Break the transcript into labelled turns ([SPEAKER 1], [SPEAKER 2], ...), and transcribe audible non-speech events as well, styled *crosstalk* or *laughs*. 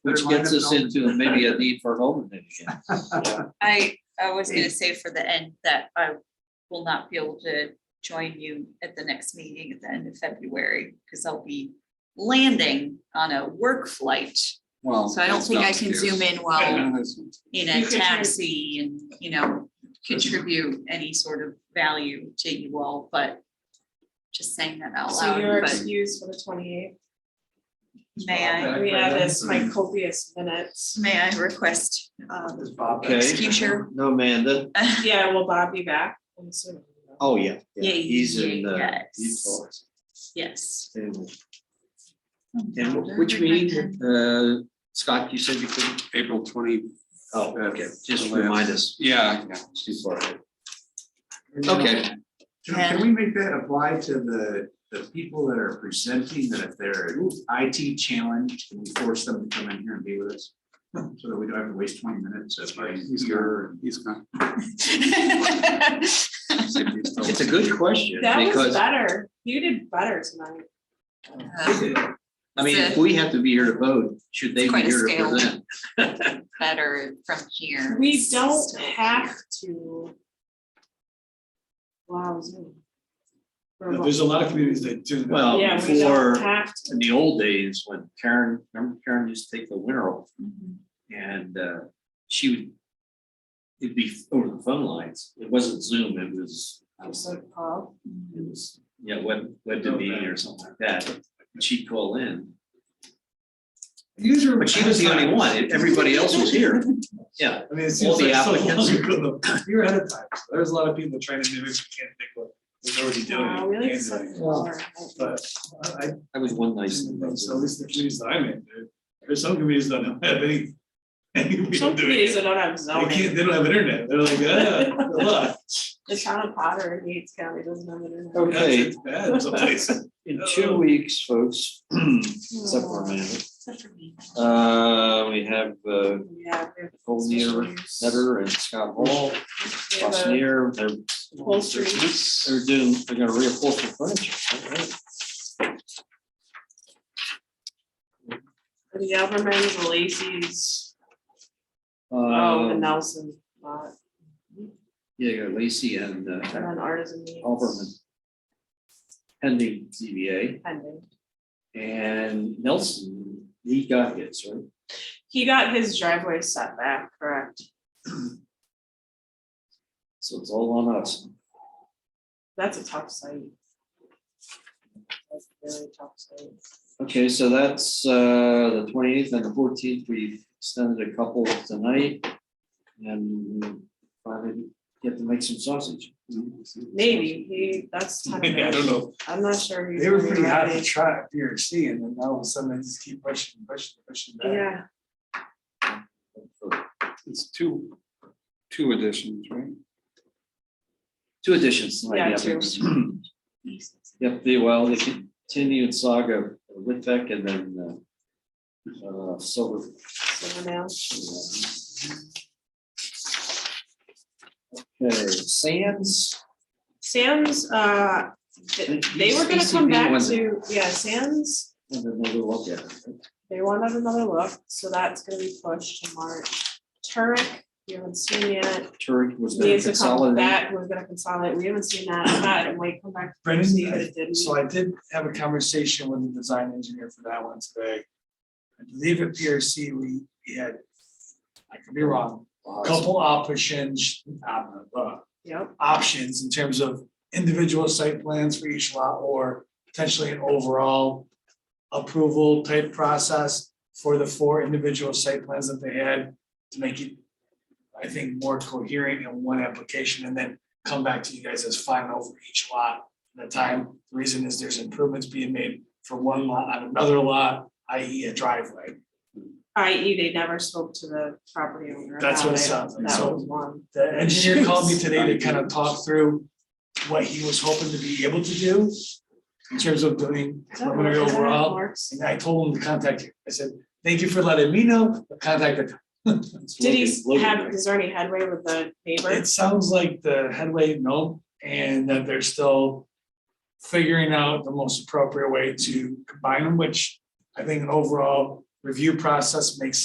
[SPEAKER 1] Which gets us into maybe a need for home invasion.
[SPEAKER 2] I, I was
[SPEAKER 1] Mm.
[SPEAKER 2] gonna say for the end that I will not be able to join you at the next meeting at the end of February, because I'll be landing on a work flight.
[SPEAKER 1] Well.
[SPEAKER 2] So I don't think I can zoom in while in a
[SPEAKER 3] You could try-
[SPEAKER 2] taxi and, you know, contribute any sort of value to you all, but just saying that out
[SPEAKER 3] So you're
[SPEAKER 2] loud, but
[SPEAKER 3] excused for the twenty
[SPEAKER 2] may I,
[SPEAKER 3] eighth. We have this my copious
[SPEAKER 2] *laughs*
[SPEAKER 3] minutes.
[SPEAKER 2] may I request, um,
[SPEAKER 1] Okay.
[SPEAKER 2] Future.
[SPEAKER 1] No, Amanda.
[SPEAKER 3] Yeah, will Bob be back? I'm assuming.
[SPEAKER 1] Oh, yeah.
[SPEAKER 2] Yeah,
[SPEAKER 1] He's in uh, the.
[SPEAKER 2] yes.
[SPEAKER 1] Utah.
[SPEAKER 2] yes.
[SPEAKER 1] And- And which
[SPEAKER 2] *laughs*
[SPEAKER 1] meeting, uh, Scott, you said you couldn't?
[SPEAKER 4] April twenty.
[SPEAKER 1] Oh, okay, just remind us.
[SPEAKER 4] Yeah, yeah.
[SPEAKER 1] It's too far ahead.
[SPEAKER 5] And then-
[SPEAKER 1] Okay,
[SPEAKER 5] Can can we make that apply to the, the people that are presenting that if they're IT challenged, can we force them to come in here and be with us? So that we don't have to waste twenty minutes of like
[SPEAKER 4] He's
[SPEAKER 5] here.
[SPEAKER 4] gone. He's gone.
[SPEAKER 1] it's a good question
[SPEAKER 3] That was
[SPEAKER 1] because,
[SPEAKER 3] better. You did better tonight.
[SPEAKER 2] Uh,
[SPEAKER 1] I mean, if we have to be here to vote, should they
[SPEAKER 2] It's
[SPEAKER 1] be
[SPEAKER 2] quite a
[SPEAKER 1] here to
[SPEAKER 2] scale.
[SPEAKER 1] present?
[SPEAKER 2] Better from here.
[SPEAKER 3] We don't have to. Wow. Zoom.
[SPEAKER 6] Yeah, There's a lot of communities that do that.
[SPEAKER 1] Well,
[SPEAKER 3] Yeah, we don't
[SPEAKER 1] before,
[SPEAKER 3] have to.
[SPEAKER 1] in the old days, when Karen, remember Karen used to take the winter off and uh, she would. It'd be over the phone lines. It wasn't Zoom, it was, I was like,
[SPEAKER 3] So, Paul,
[SPEAKER 1] it was, yeah, web, web to me or something like that. And She'd call in,
[SPEAKER 6] These are-
[SPEAKER 1] but she was the only one. Everybody else was here. Yeah,
[SPEAKER 6] I mean, it
[SPEAKER 1] All
[SPEAKER 6] seems
[SPEAKER 1] the
[SPEAKER 6] like so
[SPEAKER 1] applicants.
[SPEAKER 6] long ago. *laughs* You're ahead of time. So There's a lot of people trying to mimic, you can't think what they're already
[SPEAKER 3] Wow,
[SPEAKER 6] doing.
[SPEAKER 3] we like
[SPEAKER 6] Hands
[SPEAKER 3] suck
[SPEAKER 6] on it.
[SPEAKER 3] more.
[SPEAKER 6] But I, I,
[SPEAKER 1] that was one nice thing. about
[SPEAKER 6] uh, so at
[SPEAKER 1] Zoom.
[SPEAKER 6] least the communities that I'm in, there- there's some communities that don't have any. any way of
[SPEAKER 3] Some
[SPEAKER 6] doing
[SPEAKER 3] communities that
[SPEAKER 6] it.
[SPEAKER 3] don't have
[SPEAKER 6] They can't,
[SPEAKER 3] zoning.
[SPEAKER 6] they don't have internet. They're like,
[SPEAKER 3] *laughs*
[SPEAKER 6] ah, good luck.
[SPEAKER 3] The town of Potter in Yates County doesn't have internet.
[SPEAKER 1] Okay.
[SPEAKER 6] It's bad in some
[SPEAKER 3] *laughs*
[SPEAKER 6] places. *clears throat*
[SPEAKER 1] In two weeks, folks, except for Amanda, uh, we have uh,
[SPEAKER 3] Yeah. we have
[SPEAKER 1] Nicole
[SPEAKER 3] special
[SPEAKER 1] Neer,
[SPEAKER 3] use.
[SPEAKER 1] Netter and Scott Hall,
[SPEAKER 3] We have
[SPEAKER 1] Ross
[SPEAKER 3] a-
[SPEAKER 1] Neer, they're
[SPEAKER 3] Upholstery.
[SPEAKER 1] They're doing, they're gonna reupholster furniture. alright.
[SPEAKER 3] The Albermans, the Lacy's, oh, the
[SPEAKER 1] Um,
[SPEAKER 3] Nelson, lot,
[SPEAKER 1] Yeah, Lacy and
[SPEAKER 3] and
[SPEAKER 1] uh,
[SPEAKER 3] then Artisan Meats.
[SPEAKER 1] Alberman. Pending ZBA
[SPEAKER 3] Pending.
[SPEAKER 1] and Nelson, he got his, right?
[SPEAKER 3] He got his driveway set back, correct?
[SPEAKER 1] So it's all on us.
[SPEAKER 3] That's a tough site. That's a really tough site.
[SPEAKER 1] Okay, so that's uh, the twenty eighth and the fourteenth. We've extended a couple tonight. And finally get to make some sausage.
[SPEAKER 3] Maybe, he, that's ten
[SPEAKER 6] I don't know.
[SPEAKER 3] I'm not sure. he's
[SPEAKER 7] They were
[SPEAKER 3] gonna be
[SPEAKER 7] pretty hot
[SPEAKER 3] ready.
[SPEAKER 7] to try at PRC and then all of a sudden they just keep pushing, pushing, pushing back.
[SPEAKER 3] Yeah,
[SPEAKER 4] It's two, two editions, right?
[SPEAKER 1] Two additions tonight.
[SPEAKER 6] *clears throat*
[SPEAKER 3] Yeah, two.
[SPEAKER 1] Yep, they, well, they continued saga of Litvak and then uh, uh, Silver.
[SPEAKER 3] so now,
[SPEAKER 1] Okay, Sands.
[SPEAKER 3] Sam's, uh, th- they were gonna come
[SPEAKER 1] ECB
[SPEAKER 3] back
[SPEAKER 1] wasn't-
[SPEAKER 3] to, yeah, Sam's
[SPEAKER 1] and then we'll look at it.
[SPEAKER 3] They wanted another look, so that's gonna be pushed to March. Turek, we haven't seen yet.
[SPEAKER 1] Turk was gonna
[SPEAKER 3] Needs to come
[SPEAKER 1] consolidate.
[SPEAKER 3] back, we're gonna consolidate. We haven't seen that. That and wait, come back. to see if
[SPEAKER 7] Brendan,
[SPEAKER 3] it didn't.
[SPEAKER 7] so I did have a conversation with the design engineer for that one today. I believe at PRC, we, we had, I could be wrong, a couple options, um, uh,
[SPEAKER 3] Yep,
[SPEAKER 7] options in terms of individual site plans for each lot or potentially an overall approval type process for the four individual site plans that they had to make it, I think, more coherent in one application and then come back to you guys as final for each lot at a time. The reason is there's improvements being made for one lot on another lot, i.e. a driveway.
[SPEAKER 3] i.e. E, they never spoke to the property owner.
[SPEAKER 7] That's
[SPEAKER 3] about
[SPEAKER 7] what it
[SPEAKER 3] it.
[SPEAKER 7] sounds like.
[SPEAKER 3] That
[SPEAKER 7] So-
[SPEAKER 3] was one.
[SPEAKER 7] The engineer called me today to kind of talk through what he was hoping to be able to do in terms of doing
[SPEAKER 3] Is that
[SPEAKER 7] preliminary
[SPEAKER 3] Mark- is that how it
[SPEAKER 7] overall.
[SPEAKER 3] works?
[SPEAKER 7] And I told him to contact you. I said, thank you for letting me know, but contact the.
[SPEAKER 3] Did he have, is there any headway with the neighbor?
[SPEAKER 7] It sounds like the headway, no, and that they're still figuring out the most appropriate way to combine them, which I think an overall review process makes